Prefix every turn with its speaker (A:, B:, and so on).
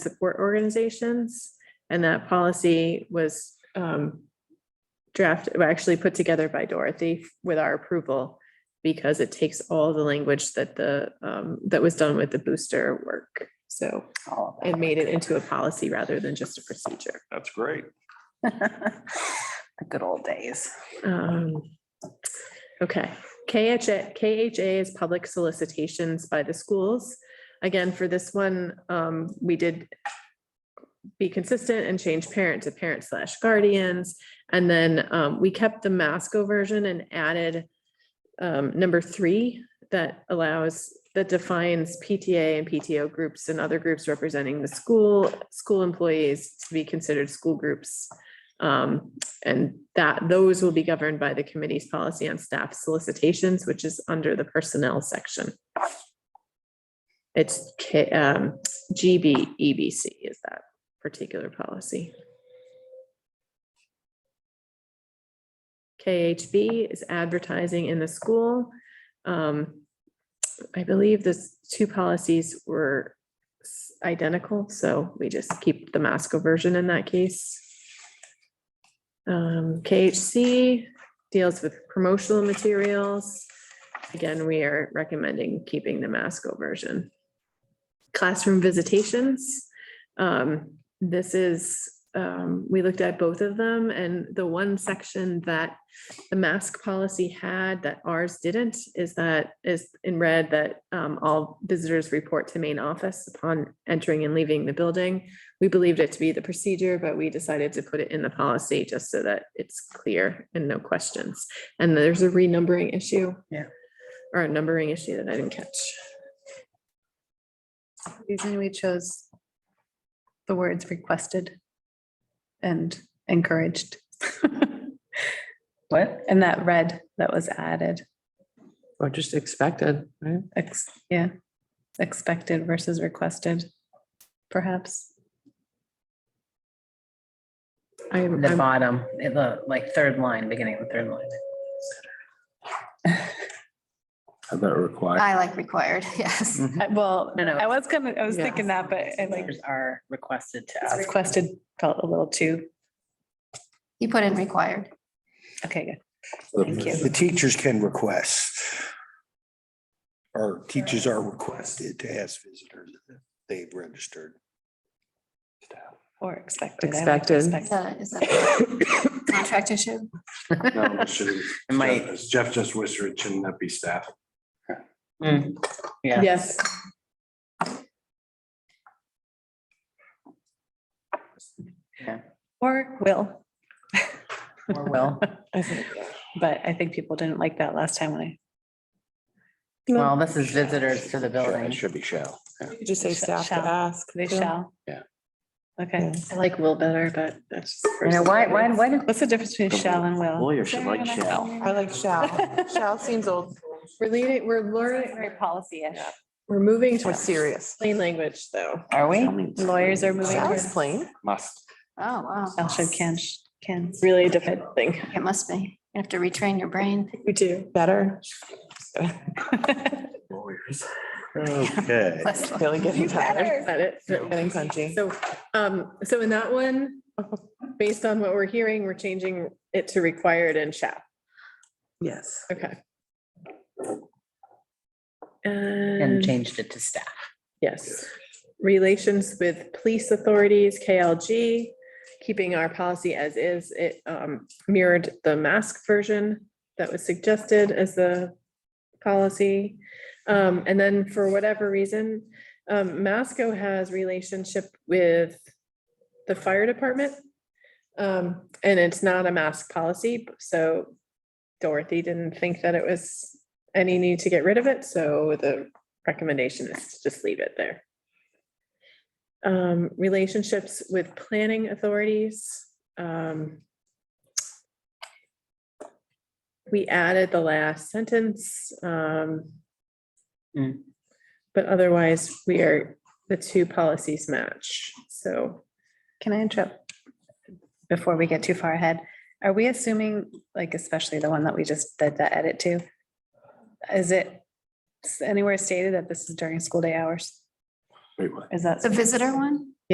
A: support organizations. And that policy was um, drafted, well, actually put together by Dorothy with our approval because it takes all the language that the, um, that was done with the booster work. So
B: all
A: it made it into a policy rather than just a procedure.
C: That's great.
B: of that. The good old days.
A: Um, Okay, KHA, KHA is public solicitations by the schools. Again, for this one, um, we did be consistent and change parent to parent slash guardians. And then, um, we kept the Masco version and added um, number three that allows, that defines PTA and PTO groups and other groups representing the school, school employees to be considered school groups. Um, and that, those will be governed by the committee's policy on staff solicitations, which is under the personnel section. It's K, um, GBEBC is that particular policy. KHB is advertising in the school. Um, I believe this two policies were s- identical, so we just keep the Masco version in that case. Um, KHC deals with promotional materials. Again, we are recommending keeping the Masco version. Classroom visitations. Um, this is, um, we looked at both of them and the one section that the mask policy had that ours didn't is that is in red that um, all visitors report to main office upon entering and leaving the building. We believed it to be the procedure, but we decided to put it in the policy just so that it's clear and no questions. And there's a renumbering issue.
B: Yeah.
A: Or a numbering issue that I didn't catch.
D: reason we chose the words requested and encouraged.
B: What?
D: And that red that was added,
E: Or just expected, right?
D: ex, yeah, expected versus requested, perhaps.
A: I,
B: The
A: I'm-
B: bottom, eh, the like third line, beginning of the third line.
C: How about required?
F: I like required, yes.
D: I- Well,
B: No, no,
D: I was gonna, I was
A: Yeah.
D: thinking that, but I like
B: Visitors Are requested to
D: it's
B: ask.
D: requested felt a little too,
F: You put in required.
D: okay, good. Thank you.
G: The teachers can request. Or teachers are requested to ask visitors if they've registered.
D: or expected. I like
E: Expected.
F: Is that, is that a contract issue?
H: No, it shouldn't.
B: It might-
H: As Jeff just whispered, shouldn't that be staff?
B: Hmm. Yeah.
A: yes,
D: Or will,
B: Or will.
D: I think, but I think people didn't like that last time when I
B: Well, this is visitors to the building.
H: Should be shall.
E: You could just say staff to
D: Shall.
E: ask.
D: They
E: too.
D: shall.
H: Yeah.
D: Okay.
E: I like will better, but that's. just
B: You know, why, why,
E: personal.
B: why did
D: What's the difference between shall and will?
I: Lawyer should like shall.
E: I like shall. Shall seems old.
A: we're leading, we're learning,
D: Very policy-ish.
A: we're moving
E: More
A: to
E: serious.
A: plain language, though.
B: are we?
I: Tell me.
D: Lawyers are moving
E: Shall
D: towards
E: is plain.
H: Must.
F: Oh, wow.
D: shall, should, can, sh- can.
A: Really a different thing.
F: It must be. You have to retrain your brain.
A: We do.
E: Better.
H: Lawyers.
G: Okay.
E: Really getting tired.
A: Got it.
E: Getting punchy.
A: So, um, so in that one, based on what we're hearing, we're changing it to required and shall.
E: Yes.
A: Okay.
B: And
A: And
B: changed it to staff.
A: yes, relations with police authorities, KLG, keeping our policy as is, it um, mirrored the mask version that was suggested as the policy. Um, And then for whatever reason, um, Masco has relationship with the fire department. Um, And it's not a mask policy, so Dorothy didn't think that it was any need to get rid of it, so the recommendation is to just leave it there. Um, relationships with planning authorities, um. We added the last sentence, um.
B: Hmm.
A: But otherwise, we are, the two policies match, so
D: Can I interrupt? Before we get too far ahead, are we assuming, like especially the one that we just did the edit to? Is it s- anywhere stated that this is during school day hours?
H: Wait, what?
D: Is that?
F: The visitor one?